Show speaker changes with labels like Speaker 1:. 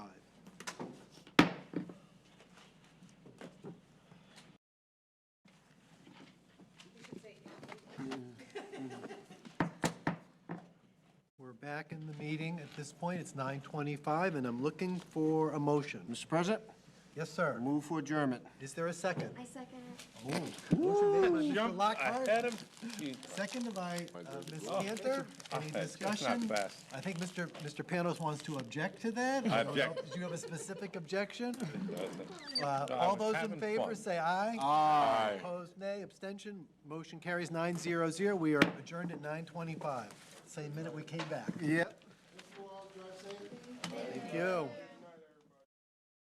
Speaker 1: back in the meeting at this point. It's 9:25, and I'm looking for a motion.
Speaker 2: Mr. President,
Speaker 1: Yes, sir.
Speaker 2: move for adjournment.
Speaker 1: Is there a second?
Speaker 3: I second it.
Speaker 1: Motion made by Mr.
Speaker 4: Jump
Speaker 1: Lockhart,
Speaker 4: ahead of him.
Speaker 1: seconded by uh, Ms. Cantor. Any
Speaker 4: That's not
Speaker 1: discussion?
Speaker 4: fast.
Speaker 1: I think Mr. Mr. Panos wants to object to that.
Speaker 4: I
Speaker 1: don't know.
Speaker 4: object.
Speaker 1: Do you have a specific objection? Uh, All
Speaker 4: was
Speaker 1: those in
Speaker 4: having
Speaker 1: favor,
Speaker 4: fun.
Speaker 1: say aye.
Speaker 4: Aye.
Speaker 1: Opposed, nay. Abstention, motion carries nine zero zero. We are adjourned at 9:25, same minute we came back.
Speaker 2: Yep.
Speaker 1: Thank you.